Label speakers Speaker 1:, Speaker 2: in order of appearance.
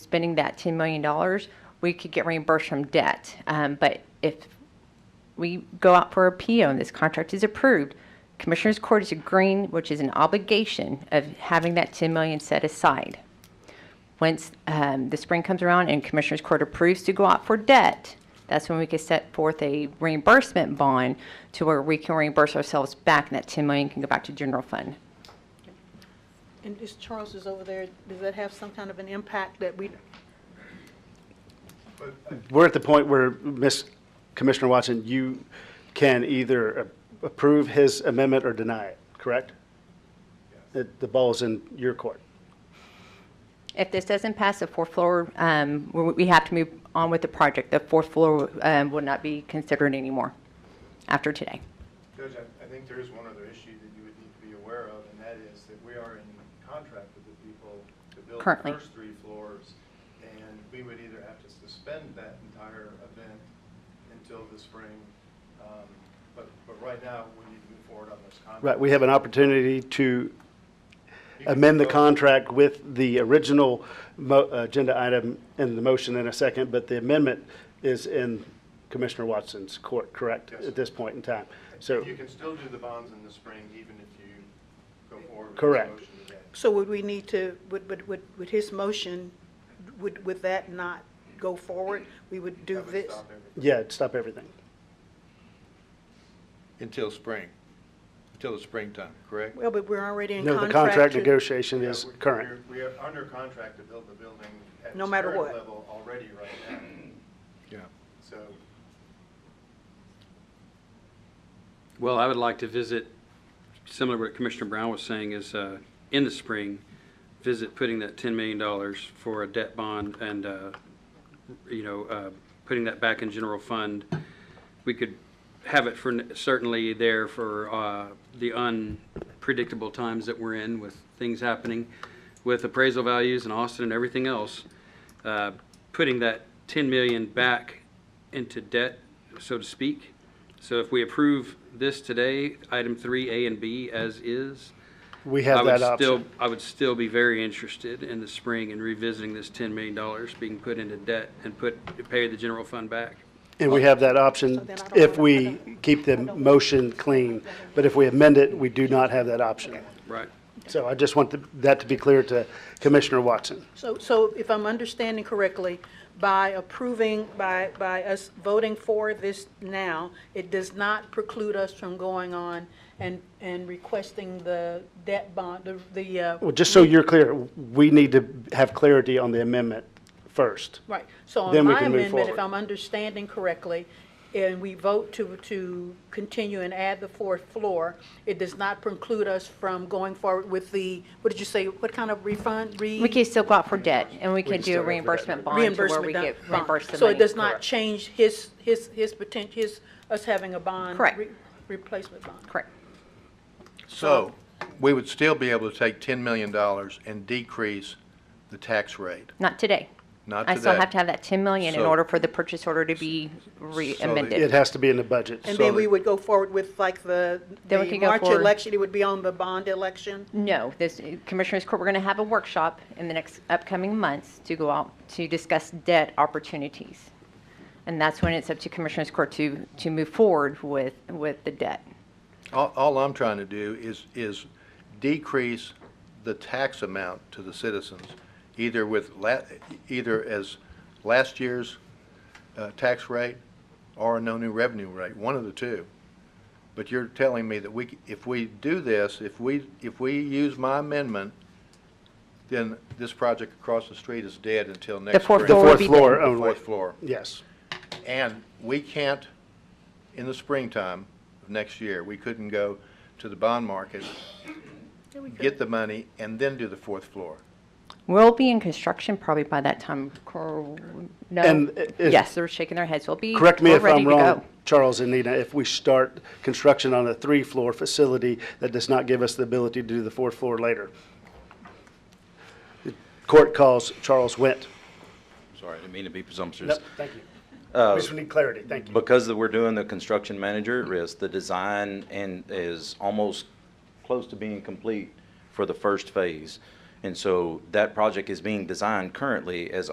Speaker 1: spending that $10 million, we could get reimbursed from debt. Um, But if we go out for a PO and this contract is approved, Commissioners Court is agreeing, which is an obligation of having that 10 million set aside. Once um, the spring comes around and Commissioners Court approves to go out for debt, that's when we could set forth a reimbursement bond to where we can reimburse ourselves back and that 10 million can go back to general fund.
Speaker 2: And this Charles is over there, does that have some kind of an impact that we,
Speaker 3: We're at the point where, Miss Commissioner Watson, you can either a- approve his amendment or deny it, correct? The the ball is in your court.
Speaker 1: If this doesn't pass, the fourth floor, um, we we have to move on with the project. The fourth floor um, will not be considered anymore after today.
Speaker 4: Judge, I, I think there is one other issue that you would need to be aware of, and that is that we are in contract with the people to build
Speaker 1: Currently.
Speaker 4: the first three floors, and we would either have to suspend that entire event until the spring, um, but, but right now, we need to move forward on this contract.
Speaker 3: Right, we have an opportunity to
Speaker 4: You can
Speaker 3: amend the
Speaker 4: vote.
Speaker 3: contract with the original mo- agenda item in the motion in a second, but the amendment is in Commissioner Watson's court, correct?
Speaker 4: Yes.
Speaker 3: At this point in time. So,
Speaker 4: You can still do the bonds in the spring, even if you go forward with the
Speaker 3: Correct.
Speaker 4: motion today.
Speaker 2: so would we need to, would, would, would would his motion, would, would that not go forward? We would do
Speaker 4: That would
Speaker 2: this?
Speaker 4: stop everything.
Speaker 3: yeah, stop everything.
Speaker 5: Until spring, until the springtime, correct?
Speaker 2: Well, but we're already in
Speaker 3: No,
Speaker 2: contract.
Speaker 3: the contract
Speaker 2: to-
Speaker 3: negotiation
Speaker 4: Yeah,
Speaker 3: is
Speaker 4: we're-
Speaker 3: current.
Speaker 4: we're- We are under contract to build the building at
Speaker 2: No
Speaker 4: its
Speaker 2: matter
Speaker 4: current
Speaker 2: what.
Speaker 4: level already right now,
Speaker 5: Yeah.
Speaker 4: so.
Speaker 6: Well, I would like to visit, similar to what Commissioner Brown was saying, is uh, in the spring, visit putting that $10 million for a debt bond and, uh, you know, uh, putting that back in general fund. We could have it for, certainly there for uh, the unpredictable times that we're in with things happening with appraisal values in Austin and everything else. Uh, Putting that 10 million back into debt, so to speak. So if we approve this today, item three, A and B as is,
Speaker 3: We
Speaker 6: I
Speaker 3: have
Speaker 6: would
Speaker 3: that
Speaker 6: still,
Speaker 3: option.
Speaker 6: I would still be very interested in the spring in revisiting this $10 million being put into debt and put, pay the general fund back.
Speaker 3: And we have that
Speaker 2: So
Speaker 3: option
Speaker 2: then I don't
Speaker 3: if
Speaker 2: wanna- I
Speaker 3: we
Speaker 2: don't-
Speaker 3: keep the motion clean. But if we amend it, we do not have that option.
Speaker 6: Right.
Speaker 3: So I just want th- that to be clear to Commissioner Watson.
Speaker 2: So, so if I'm understanding correctly, by approving, by, by us voting for this now, it does not preclude us from going on and, and requesting the debt bond, the, the, uh,
Speaker 3: Well, just so you're clear, we need to have clarity on the amendment first.
Speaker 2: Right, so on
Speaker 3: Then we
Speaker 2: my
Speaker 3: can move
Speaker 2: amendment, if
Speaker 3: forward.
Speaker 2: I'm understanding correctly, and we vote to, to continue and add the fourth floor, it does not preclude us from going forward with the, what did you say, what kind of refund? Re-
Speaker 1: We could still go out for debt and we could
Speaker 3: can
Speaker 1: do
Speaker 3: still go
Speaker 1: a
Speaker 3: for that.
Speaker 1: reimbursement bond to where
Speaker 2: Reimbursement
Speaker 1: we
Speaker 2: down-
Speaker 1: get
Speaker 2: bond.
Speaker 1: reimbursed the
Speaker 2: So it
Speaker 1: money.
Speaker 2: does not change his, his, his potential, his, us having a bond.
Speaker 1: Correct.
Speaker 2: re- Replacement bond.
Speaker 1: Correct.
Speaker 5: So, we would still be able to take $10 million and decrease the tax rate,
Speaker 1: Not today.
Speaker 5: not today.
Speaker 1: I still have to have that 10 million in
Speaker 5: So-
Speaker 1: order for the purchase order to be re-
Speaker 5: So the-
Speaker 3: It
Speaker 1: amended.
Speaker 3: has to be in the budget.
Speaker 2: And
Speaker 5: So
Speaker 2: then we
Speaker 5: the-
Speaker 2: would go forward with like the,
Speaker 1: Then we
Speaker 2: the
Speaker 1: could go
Speaker 2: March
Speaker 1: forward.
Speaker 2: election, it would be on the bond election?
Speaker 1: No, this uh, Commissioners Court, we're going to have a workshop in the next upcoming months to go out to discuss debt opportunities. And that's when it's up to Commissioners Court to, to move forward with, with the debt.
Speaker 5: All, all I'm trying to do is, is decrease the tax amount to the citizens, either with la, either as last year's, uh, tax rate or no new revenue rate, one of the two. But you're telling me that we, c- if we do this, if we, if we use my amendment, then this project across the street is dead until next spring.
Speaker 1: fourth
Speaker 3: The
Speaker 1: floor would
Speaker 3: fourth
Speaker 1: be
Speaker 3: floor
Speaker 1: the-
Speaker 3: only.
Speaker 5: Fourth floor.
Speaker 3: Yes.
Speaker 5: And we can't, in the springtime of next year, we couldn't go to the bond market, get the money, and then do the fourth floor.
Speaker 1: We'll be in construction probably by that time. Cor- No,
Speaker 3: And i- is-
Speaker 1: yes, they're shaking their heads. We'll be.
Speaker 3: Correct me
Speaker 1: we're
Speaker 3: if
Speaker 1: ready
Speaker 3: I'm
Speaker 1: to
Speaker 3: wrong,
Speaker 1: go.
Speaker 3: Charles and Nina, if we start construction on a three-floor facility, that does not give us the ability to do the fourth floor later. The Court calls Charles Went.
Speaker 7: Sorry, I didn't mean to be presumptuous.
Speaker 3: Nope, thank you. We just need clarity, thank you.
Speaker 7: Because that we're doing the construction manager at risk, the design and is almost close to being complete for the first phase. And so that project is being designed currently as